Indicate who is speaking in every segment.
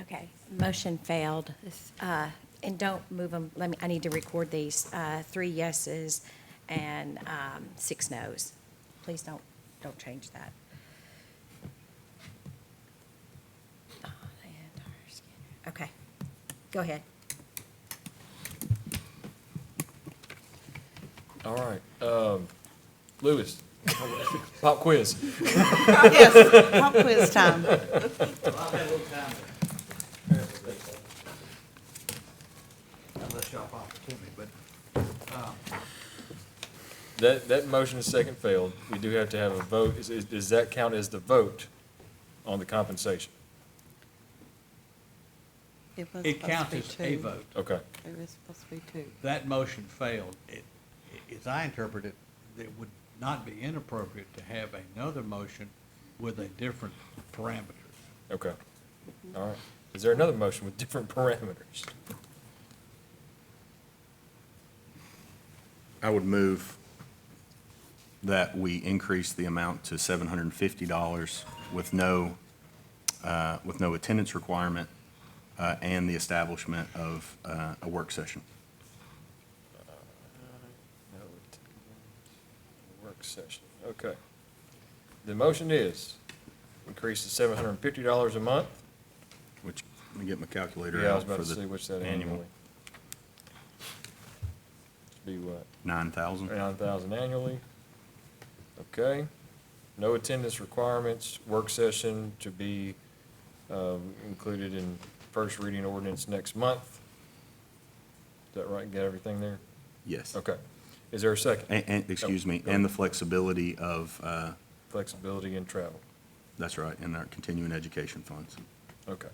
Speaker 1: Okay, motion failed. Uh, And don't move them, let me, I need to record these. Uh, Three yeses and um, six noes. Please don't, don't change that. Okay, go ahead.
Speaker 2: All right, um, Lewis, pop quiz.
Speaker 3: Yes, pop quiz time.
Speaker 4: unless y'all pop it to me, but uh,
Speaker 2: That, that motion and second failed. We do have to have a vote. Is, is, does that count as the vote on the compensation?
Speaker 3: was supposed
Speaker 4: it
Speaker 3: to
Speaker 4: counts
Speaker 3: be
Speaker 4: as a
Speaker 3: two.
Speaker 4: vote.
Speaker 2: Okay,
Speaker 3: It was supposed to be two.
Speaker 4: That motion failed. It, i- as I interpret it, it would not be inappropriate to have another motion with a different parameters.
Speaker 2: okay. All right. Is there another motion with different parameters?
Speaker 5: I would move that we increase the amount to $750 with no, uh, with no attendance requirement uh, and the establishment of uh, a work session.
Speaker 2: No, it- Work session, okay. The motion is increase to seven hundred and fifty dollars a month.
Speaker 5: Which, let me get my calculator
Speaker 2: Yeah, I was
Speaker 5: out
Speaker 2: about
Speaker 5: for
Speaker 2: to see
Speaker 5: the
Speaker 2: what's that annually. Should
Speaker 5: annual.
Speaker 2: Be what?
Speaker 5: 9,000.
Speaker 2: Nine thousand annually. Okay. No attendance requirements, work session to be um, included in first reading ordinance next month. Is that right? Got everything there?
Speaker 5: Yes.
Speaker 2: Okay. Is there a second?
Speaker 5: And, and, excuse me, and the flexibility of, uh,
Speaker 2: Flexibility in travel.
Speaker 5: that's right, in our continuing education funds.
Speaker 2: Okay.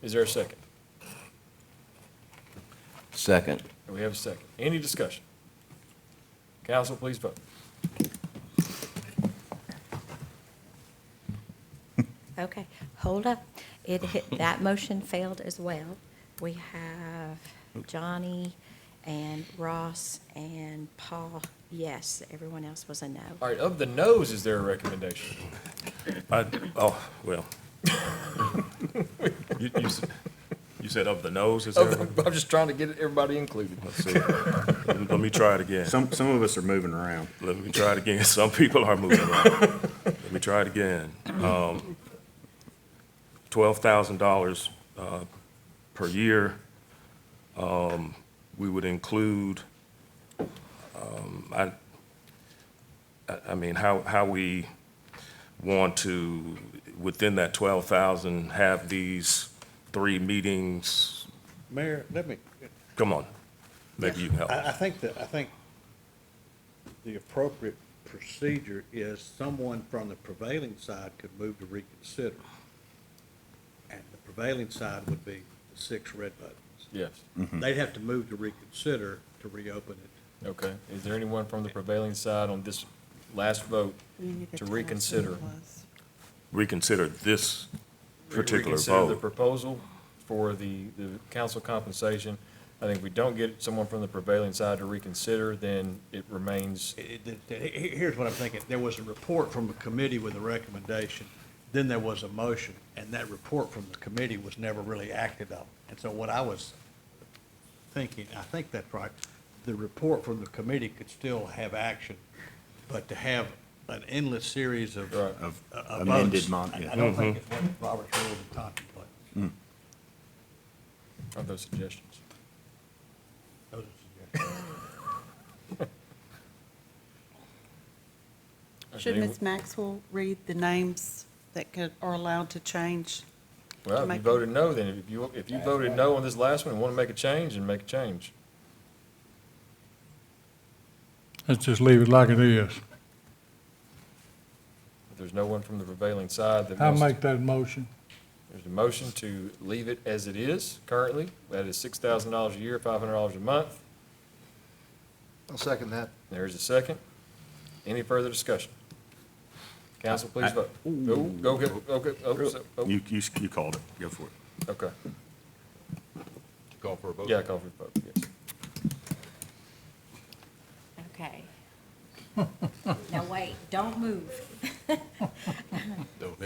Speaker 2: Is there a second?
Speaker 6: Second.
Speaker 2: We have a second. Any discussion? Council, please vote.
Speaker 1: Okay, hold up. It hit, that motion failed as well. We have Johnny and Ross and Paul, yes. Everyone else was a no.
Speaker 2: All right, of the noes, is there a recommendation?
Speaker 7: I, oh, well. You, you, s- you said of the nose, is there?
Speaker 2: Of the- I'm just trying to get everybody included.
Speaker 7: Let's see. Let me try it again.
Speaker 5: Some, some of us are moving around.
Speaker 7: Let me try it again. Some people are moving around. Let me try it again. Um, twelve thousand dollars, uh, per year. Um, we would include, um, I, I, I mean, how, how we want to, within that twelve thousand, have these three meetings.
Speaker 8: Mayor, let me,
Speaker 7: Come on, maybe you can help.
Speaker 8: I, I think that, I think the appropriate procedure is someone from the prevailing side could move to reconsider. And the prevailing side would be the six red buttons.
Speaker 2: Yes.
Speaker 5: Mm-hmm.
Speaker 8: They'd have to move to reconsider to reopen it.
Speaker 2: Okay, is there anyone from the prevailing side on this last vote
Speaker 3: You need
Speaker 2: to
Speaker 3: tell us who it
Speaker 2: reconsider?
Speaker 3: was.
Speaker 7: Reconsider this particular
Speaker 2: Reconsider the
Speaker 7: vote.
Speaker 2: proposal for the, the council compensation. I think if we don't get someone from the prevailing side to reconsider, then it remains,
Speaker 8: It- it- it- he- Here's what I'm thinking. There was a report from a committee with a recommendation, then there was a motion, and that report from the committee was never really acted on. And so what I was thinking, I think that's right, the report from the committee could still have action, but to have an endless series of.
Speaker 2: Right.
Speaker 8: of-
Speaker 5: Of
Speaker 8: of
Speaker 5: amended
Speaker 8: votes,
Speaker 5: mon-
Speaker 8: I
Speaker 5: yeah. Mm.
Speaker 8: I don't think
Speaker 4: Mm-hmm.
Speaker 8: it's what Robert's rules would contemplate.
Speaker 2: of those suggestions?
Speaker 8: Those are suggestions.
Speaker 3: Should Ms. Maxwell read the names that could, are allowed to change?
Speaker 2: Well, if you
Speaker 3: make-
Speaker 2: voted no, then if you, if you voted no on this last one and want to make a change, then make a change.
Speaker 9: Let's just leave it like it is.
Speaker 2: If there's no one from the prevailing side that
Speaker 9: I
Speaker 2: wants to-
Speaker 9: make that motion.
Speaker 2: There's a motion to leave it as it is currently. That is six thousand dollars a year, five hundred dollars a month.
Speaker 4: I'll second that.
Speaker 2: There's a second. Any further discussion? Council, please vote. Go, go, get- go, get- oh, so- oh,
Speaker 5: You, you, you called it. Go for it.
Speaker 2: okay.
Speaker 4: Call for a vote.
Speaker 2: Yeah, call for the vote, yes.
Speaker 1: Okay. Now, wait, don't move.